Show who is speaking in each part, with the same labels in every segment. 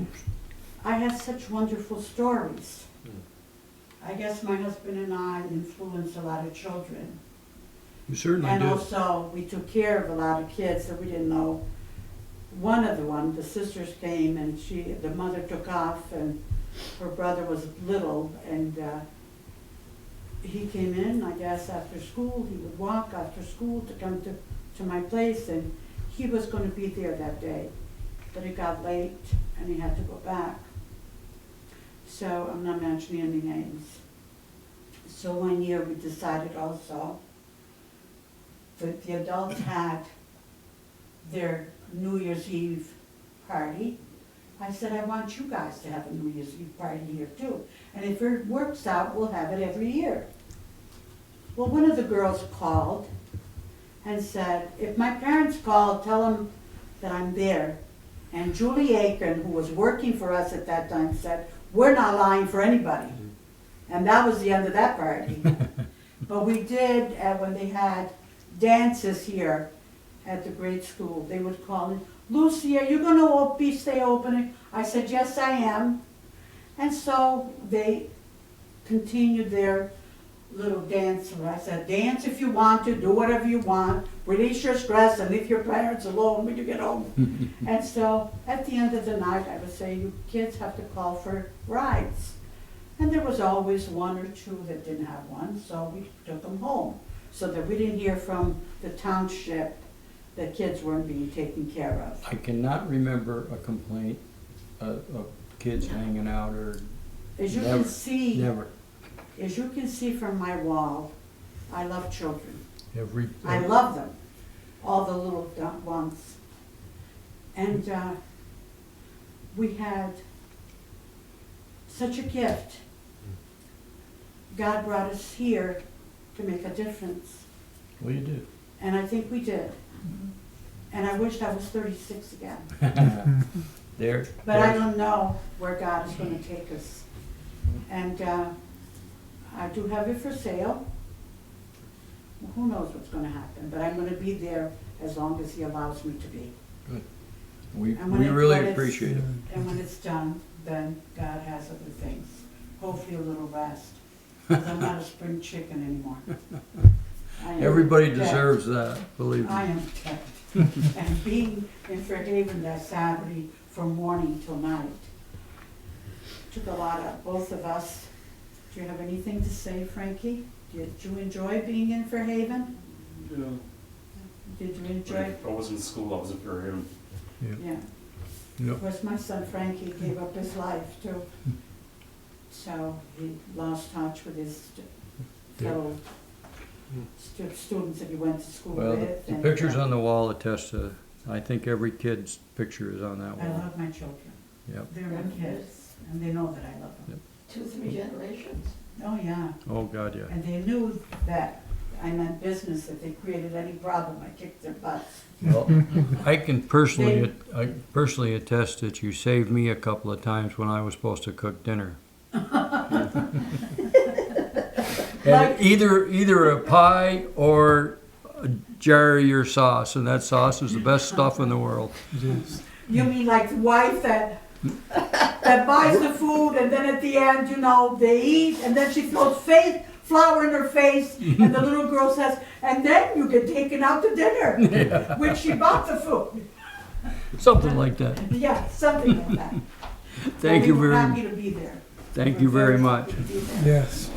Speaker 1: Oops.
Speaker 2: I had such wonderful stories. I guess my husband and I influenced a lot of children.
Speaker 1: You certainly
Speaker 2: And
Speaker 1: did.
Speaker 2: also, we took care of a lot of kids that we didn't know. One of the one, the sisters came and she, the mother took off and her brother was little and uh, he came in, I guess, after school. He would walk after school to come to, to my place and he was gonna be there that day. But it got late and he had to go back. So I'm not mentioning any names. So one year we decided also that the adults had their New Year's Eve party. I said, I want you guys to have a New Year's Eve party here too. And if it works out, we'll have it every year. Well, one of the girls called and said, if my parents call, tell them that I'm there. And Julie Aiken, who was working for us at that time, said, we're not lying for anybody. And that was the end of that party. But we did, uh, when they had dances here at the grade school, they would call in, Lucy, are you gonna op- be stay opening? I said, yes, I am. And so they continued their little dance, and I said, dance if you want to, do whatever you want, release your stress and leave your parents alone when you get home. And so, at the end of the night, I would say, you kids have to call for rides. And there was always one or two that didn't have one, so we took them home, so that we didn't hear from the township that kids weren't being taken care of.
Speaker 1: I cannot remember a complaint of, of kids hanging out or,
Speaker 2: As you
Speaker 1: Never,
Speaker 2: can see,
Speaker 1: never.
Speaker 2: as you can see from my wall, I love children.
Speaker 1: Every,
Speaker 2: I love them, all the little dumb ones. And uh, we had such a gift. God brought us here to make a difference,
Speaker 1: well, you did.
Speaker 2: and I think we did. And I wish I was 36 again,
Speaker 1: There.
Speaker 2: but I
Speaker 1: there-
Speaker 2: don't know where God is going to take us. And uh, I do have it for sale. Who knows what's going to happen, but I'm going to be there as long as He allows me to be.
Speaker 1: We,
Speaker 2: I'm gonna
Speaker 1: we really
Speaker 2: put it-
Speaker 1: appreciate it.
Speaker 2: And when it's done, then God has other things. Hopefully a little rest. 'cause I'm not a spring chicken anymore. I am
Speaker 1: Everybody
Speaker 2: dead.
Speaker 1: deserves that, believe
Speaker 2: I
Speaker 1: me.
Speaker 2: am dead. And being in Fairhaven that Saturday from morning till night took a lot of both of us. Do you have anything to say, Frankie? Did you enjoy being in Fairhaven?
Speaker 3: Yeah.
Speaker 2: Did you
Speaker 3: Like,
Speaker 2: enjoy?
Speaker 3: if I was in school, I was in Fairhaven.
Speaker 2: Yeah.
Speaker 1: Yep.
Speaker 2: Of course, my son Frankie gave up his life too. So he lost touch with his st-
Speaker 1: Yeah.
Speaker 2: fellow stu- students that he went to school
Speaker 1: Well, the-
Speaker 2: with.
Speaker 1: the
Speaker 2: and,
Speaker 1: pictures
Speaker 2: uh,
Speaker 1: on the wall attest to, I think every kid's picture is on that
Speaker 2: I
Speaker 1: wall.
Speaker 2: love my children.
Speaker 1: Yep.
Speaker 2: They're my kids, and they know that I love them.
Speaker 4: Two, three generations.
Speaker 2: Oh, yeah.
Speaker 1: Oh, God, yeah.
Speaker 2: And they knew that I meant business, if they created any problem, I kicked their butts.
Speaker 1: Well, I can personally,
Speaker 2: They-
Speaker 1: I personally attest that you saved me a couple of times when I was supposed to cook dinner. And
Speaker 2: Like-
Speaker 1: either, either a pie or a jar of your sauce, and that sauce is the best stuff in the world.
Speaker 2: You mean like the wife that, that buys the food and then at the end, you know, they eat and then she throws face, flour in her face and the little girl says, and then you get taken out to dinner, when she bought the food.
Speaker 1: Something like that.
Speaker 2: Yeah, something like that.
Speaker 1: Thank you
Speaker 2: Well, we were
Speaker 1: very,
Speaker 2: Happy to be there.
Speaker 1: thank
Speaker 2: We're
Speaker 1: you very much.
Speaker 2: happy to be there.
Speaker 5: Yes.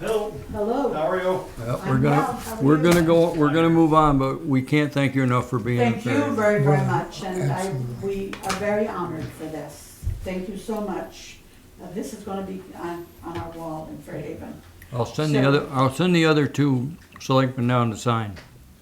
Speaker 3: Hello,
Speaker 2: Hello.
Speaker 3: how are you?
Speaker 1: Well,
Speaker 2: I'm
Speaker 1: We're
Speaker 2: well. How
Speaker 1: gonna,
Speaker 2: are
Speaker 1: we're
Speaker 2: you?
Speaker 1: gonna go, we're gonna move on, but we can't thank you enough for being in
Speaker 2: Thank you
Speaker 1: Fairhaven.
Speaker 2: very, very
Speaker 5: Well,
Speaker 2: much, and I,
Speaker 5: absolutely.
Speaker 2: we are very honored for this. Thank you so much. Uh, This is gonna be on, on our wall in Fairhaven.
Speaker 1: I'll send the
Speaker 2: So-
Speaker 1: other, I'll send the other two selectmen down to sign.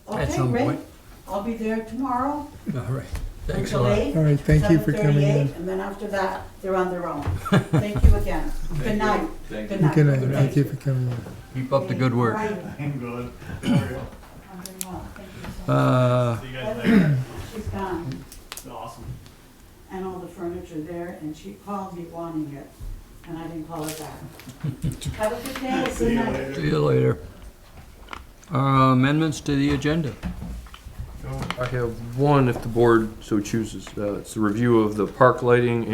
Speaker 1: At
Speaker 2: Okay,
Speaker 1: some
Speaker 2: great.
Speaker 1: point.
Speaker 2: I'll be there tomorrow.
Speaker 1: All right. Thanks a
Speaker 2: until
Speaker 1: lot.
Speaker 2: eight,
Speaker 5: All right, thank you for coming
Speaker 2: 7:38,
Speaker 5: in.
Speaker 2: And then after that, they're on their own. Thank you again. Good night. Good night.
Speaker 5: Good night, thank you for coming in.
Speaker 1: Keep up the good
Speaker 2: How are
Speaker 1: work.
Speaker 2: you?
Speaker 3: I'm good. How are you?
Speaker 2: I'm very well, thank you so
Speaker 1: Uh,
Speaker 3: See you guys later.
Speaker 2: much. She's
Speaker 5: Uh,
Speaker 2: gone,
Speaker 3: Awesome.
Speaker 2: and all the furniture there, and she called me wanting it, and I didn't call her back. Have a good day,
Speaker 3: See
Speaker 2: good
Speaker 3: you
Speaker 2: night.
Speaker 1: see
Speaker 3: later.
Speaker 1: you later. Uh, amendments to the agenda.
Speaker 3: Go.
Speaker 6: I have one if the board so chooses. Uh, It's the review of the park lighting